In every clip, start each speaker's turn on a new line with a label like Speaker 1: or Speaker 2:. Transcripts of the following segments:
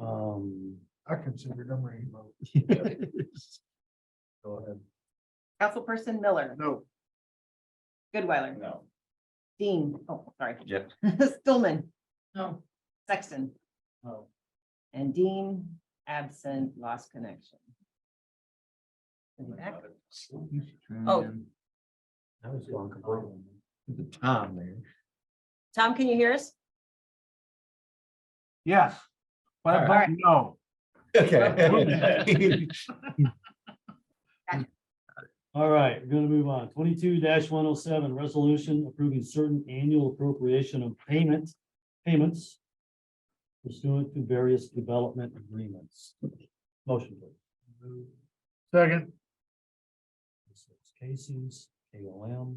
Speaker 1: Um,
Speaker 2: I considered them a hero.
Speaker 1: go ahead.
Speaker 3: Councilperson Miller,
Speaker 2: No.
Speaker 3: Goodweiler,
Speaker 1: No.
Speaker 3: Dean, oh, sorry.
Speaker 1: Yep.
Speaker 3: Stillman,
Speaker 2: No.
Speaker 3: Sexton,
Speaker 2: No.
Speaker 3: and Dean, absent, lost connection. Is he back? Oh.
Speaker 1: I was going completely. The time there.
Speaker 3: Tom, can you hear us?
Speaker 2: Yes. But I
Speaker 3: Alright.
Speaker 2: vote no.
Speaker 1: Okay.
Speaker 4: All right, we're gonna move on. Twenty-two one oh seven, resolution approving certain annual appropriation of payment, payments pursuant to various development agreements. Motion please.
Speaker 2: Second.
Speaker 4: This is Casey's, KOM,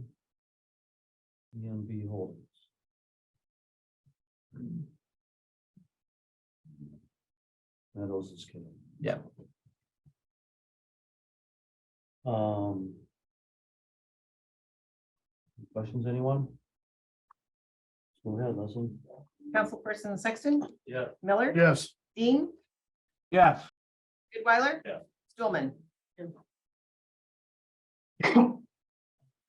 Speaker 4: EMB E Holdings. Meadows is KOM.
Speaker 1: Yeah.
Speaker 4: Um. Questions, anyone? Go ahead, Leslie.
Speaker 3: Councilperson Sexton,
Speaker 4: Yeah.
Speaker 3: Miller,
Speaker 2: Yes.
Speaker 3: Dean,
Speaker 2: Yes.
Speaker 3: Goodweiler?
Speaker 4: Yeah.
Speaker 3: Stillman?
Speaker 4: All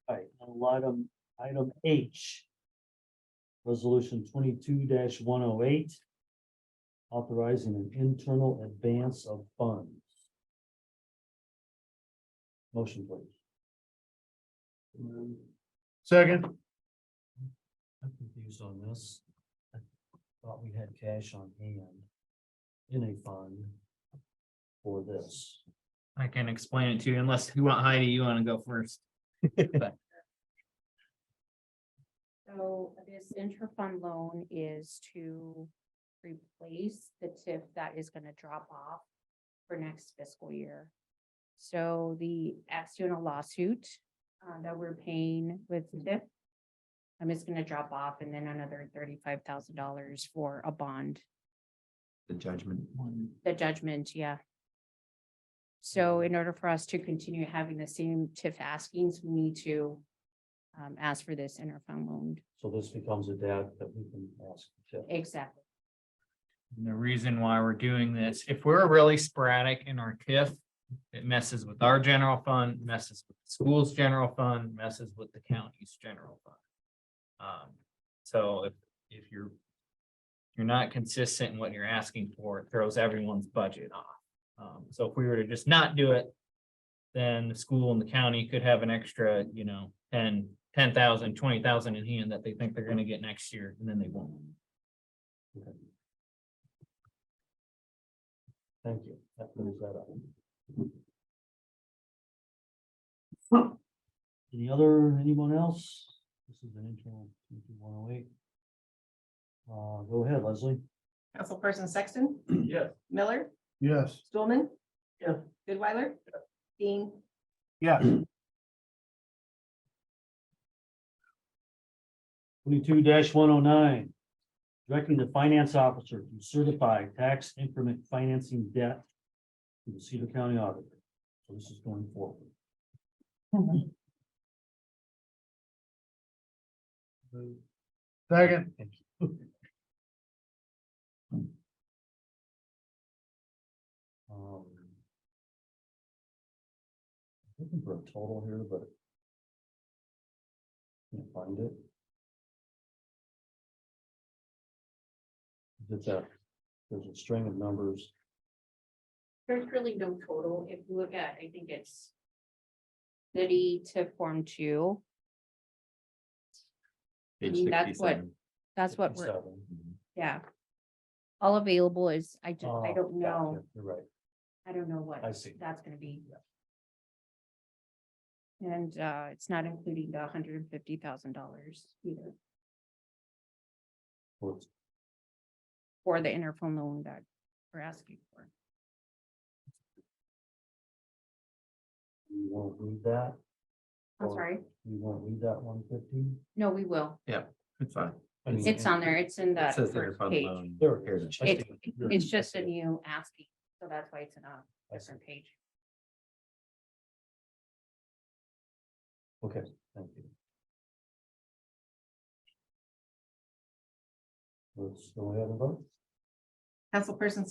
Speaker 4: right, now item, item H. Resolution twenty-two one oh eight. Authorizing an internal advance of funds. Motion please.
Speaker 2: Second.
Speaker 4: I'm confused on this. I Thought we had cash on hand. In a fund. For this.
Speaker 5: I can explain it to you unless you want Heidi, you want to go first.
Speaker 6: So this interfund loan is to replace the TIF that is gonna drop off for next fiscal year. So the Assiona lawsuit uh, that we're paying with TIF. I'm just gonna drop off and then another thirty-five thousand dollars for a bond,
Speaker 1: The judgment one.
Speaker 6: the judgment, yeah. So in order for us to continue having the same TIF askings, we need to um, ask for this interfund loan.
Speaker 4: So this becomes a debt that we can ask. to-
Speaker 6: Exactly.
Speaker 5: And The reason why we're doing this, if we're really sporadic in our TIF, it messes with our general fund, messes with the school's general fund, messes with the county's general fund. Um, so if, if you're, you're not consistent in what you're asking for, it throws everyone's budget off. Um, so if we were to just not do it, then the school and the county could have an extra, you know, ten, ten thousand, twenty thousand in hand that they think they're gonna get next year, and then they won't.
Speaker 4: Thank you. That clears that up. Any other, anyone else? This is an internal one oh eight. Uh, go ahead, Leslie.
Speaker 3: Councilperson Sexton,
Speaker 4: Yes.
Speaker 3: Miller,
Speaker 2: Yes.
Speaker 3: Stillman?
Speaker 4: Yeah.
Speaker 3: Goodweiler? Dean,
Speaker 2: Yes.
Speaker 4: Twenty-two one oh nine. Directing the finance officer to certify tax increment financing debt to the Cedar County auditor. So this is going forward.
Speaker 2: Second.
Speaker 4: Um, Looking for a total here, but. Can't find it. It's a, there's a string of numbers.
Speaker 6: There's really no total. If you look at, I think it's city to form two.
Speaker 1: Page
Speaker 6: mean, that's what-
Speaker 1: 67.
Speaker 6: That's what we're,
Speaker 4: 57.
Speaker 6: yeah. All available is, I just,
Speaker 4: Oh,
Speaker 6: I don't know.
Speaker 4: gotcha, You're right,
Speaker 6: I don't know what
Speaker 4: I see.
Speaker 6: that's gonna be. And uh, it's not including the hundred and fifty thousand dollars either
Speaker 4: Well, it's-
Speaker 6: for the interphone loan that we're asking for.
Speaker 4: You won't read that,
Speaker 6: I'm
Speaker 4: Or-
Speaker 6: sorry.
Speaker 4: you won't read that one fifty?
Speaker 6: No, we will.
Speaker 1: It's fine.
Speaker 6: It's on there. It's in
Speaker 1: It
Speaker 6: that
Speaker 1: says
Speaker 6: first
Speaker 1: interfund
Speaker 6: page.
Speaker 1: loan.
Speaker 4: There it
Speaker 1: Heritage.
Speaker 4: is. I
Speaker 6: It's,
Speaker 4: see it. You're-
Speaker 6: it's
Speaker 4: I
Speaker 6: just
Speaker 4: see
Speaker 6: a
Speaker 4: it.
Speaker 6: new asking, so that's why it's in a
Speaker 4: I see.
Speaker 6: different page.
Speaker 4: Okay, thank you. Let's go ahead and vote.
Speaker 3: Councilperson